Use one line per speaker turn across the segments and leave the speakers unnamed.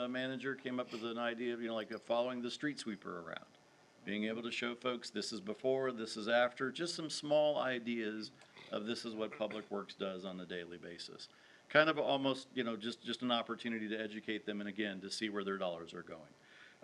uh, manager came up with an idea of, you know, like uh, following the street sweeper around. Being able to show folks, this is before, this is after, just some small ideas of this is what Public Works does on a daily basis. Kind of almost, you know, just, just an opportunity to educate them and again, to see where their dollars are going.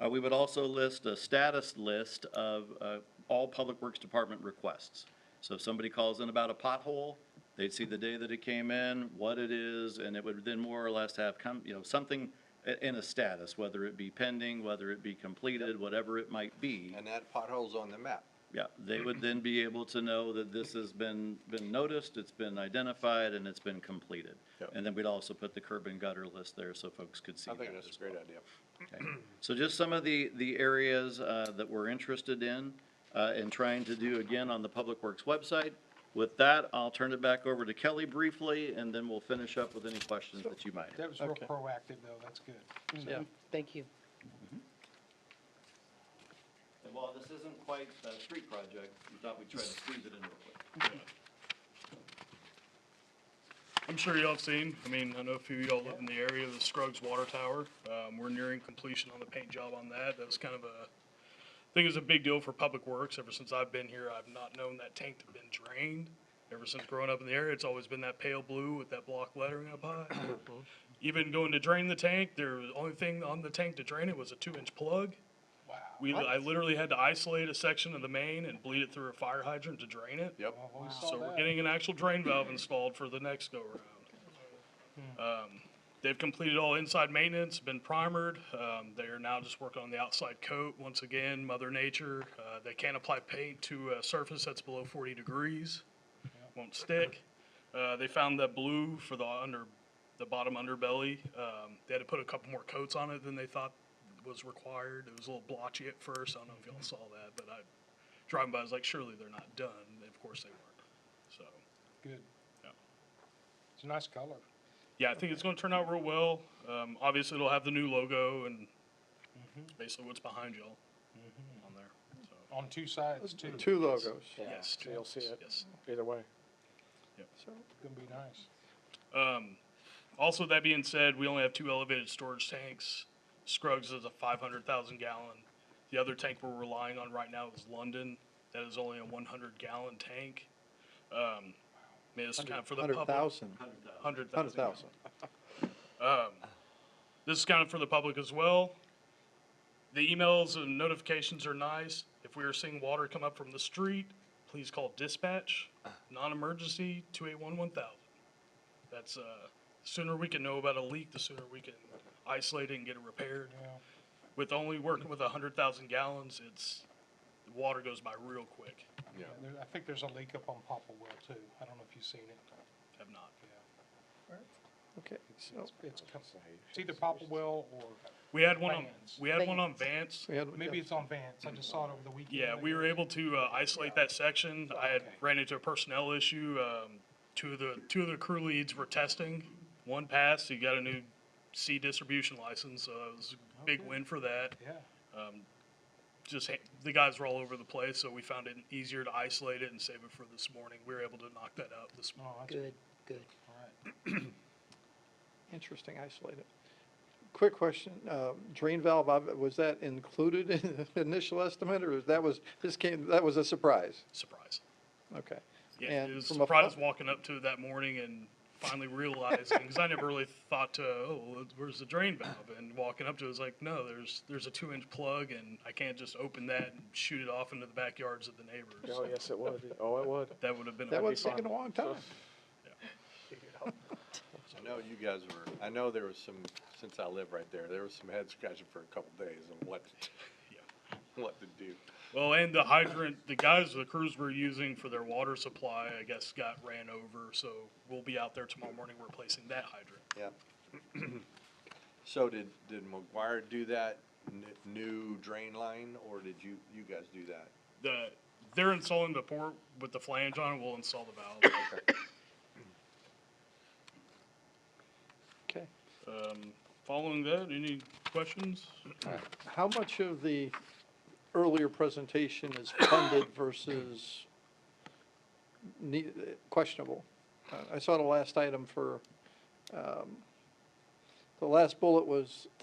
Uh, we would also list a status list of, uh, all Public Works Department requests. So if somebody calls in about a pothole, they'd see the day that it came in, what it is, and it would then more or less have come, you know, something i- in a status, whether it be pending, whether it be completed, whatever it might be.
and that pothole's on the map.
Yeah, they would then be able to know that this has been, been noticed, it's been identified, and it's been completed.
Yep.
And then we'd also put the curb and gutter list there so folks could see
I
that
think that's
as
a great
well.
idea.
Okay. So just some of the, the areas uh, that we're interested in uh, and trying to do again on the Public Works website. With that, I'll turn it back over to Kelly briefly, and then we'll finish up with any questions that you might have.
That was real proactive, though, that's good.
Yeah.
Thank you.
And while this isn't quite a street project, we thought we'd try to squeeze it in real quick.
I'm sure y'all have seen, I mean, I know a few of y'all live in the area, the Scruggs Water Tower. Um, we're nearing completion on the paint job on that. That was kind of a, I think it was a big deal for Public Works. Ever since I've been here, I've not known that tank to have been drained. Ever since growing up in the area, it's always been that pale blue with that block lettering up high. Even going to drain the tank, there was, only thing on the tank to drain it was a two-inch plug.
Wow.
We, I literally had to isolate a section of the main and bleed it through a fire hydrant to drain it.
Yep.
Well, we saw
So we're
that.
getting an actual drain valve installed for the next go-round. Um, They've completed all inside maintenance, been primered. Um, They are now just working on the outside coat. Once again, Mother Nature, uh, they can't apply paint to a surface that's below 40 degrees. Won't stick. Uh, They found that blue for the under, the bottom underbelly. Um, They had to put a couple more coats on it than they thought was required. It was a little blotchy at first. I don't know if y'all saw that, but I, driving by, I was like, surely they're not done. And Of course they weren't. So,
Good.
Yeah.
It's a nice color.
yeah, I think it's gonna turn out real well. Um, obviously it'll have the new logo and it's basically what's behind y'all on there, so,
On two sides, too. It's
Two logos,
yes.
so you'll see it.
Yes.
either way.
gonna be nice.
Um, also, that being said, we only have two elevated storage tanks. Scruggs is a five hundred thousand gallon. The other tank we're relying on right now is London. That is only a one hundred gallon tank. Um, I mean, this is kind of for the public.
Hundred thousand,
Hundred thousand.
hundred thousand.
Um, this is kind of for the public as well. The emails and notifications are nice. If we are seeing water come up from the street, please call dispatch, non-emergency, two eight one one thousand. That's, uh, sooner we can know about a leak, the sooner we can isolate it and get it repaired.
Yeah.
With only working with a hundred thousand gallons, it's, the water goes by real quick.
And there- I think there's a leak up on Popplewell, too. I don't know if you've seen it.
Have not.
Yeah.
Okay, so
It's, it's, com- it's either Popplewell or,
We had one on,
Vans.
we had one on Vance.
we had,
maybe it's on Vance. I just saw it over the weekend.
Yeah, we were able to uh, isolate that section. I had ran into a personnel issue. Um, two of the two of the crew leads were testing. One passed. He got a new C distribution license, so it was a big win for that.
Yeah,
Just ha- the guys were all over the place, so we found it easier to isolate it and save it for this morning. We were able to knock that out this morning.
no, that's
Good, good.
all right.
interesting, isolated. Quick question, uh, drain valve, I- was that included in the initial estimate, or that was, this came, that was a surprise?
Surprise.
Okay.
Yeah,
And
it was
from a
surprise
pub-
walking up to it that morning and finally realizing because I never really thought to, oh, well, where's the drain valve? And walking up to it was like, no, there's there's a two inch plug and I can't just open that and shoot it off into the backyards of the neighbors.
Oh, yes, it would. Oh, it would.
That would have been
That
a
was taking a long time.
I know you guys were, I know there was some, since I live right there, there was some head scratching for a couple days on what, to- what to do.
well, and the hydrant, the guys, the crews were using for their water supply, I guess, got ran over. So we'll be out there tomorrow morning replacing that hydrant.
Yeah. So did, did McGuire do that n- new drain line, or did you, you guys do that?
The they're installing the port with the flange on it. We'll install the valve.
Okay.
Um, following that, any questions?
How much of the earlier presentation is funded versus ne- questionable? Uh, I saw the last item for, um, the last bullet was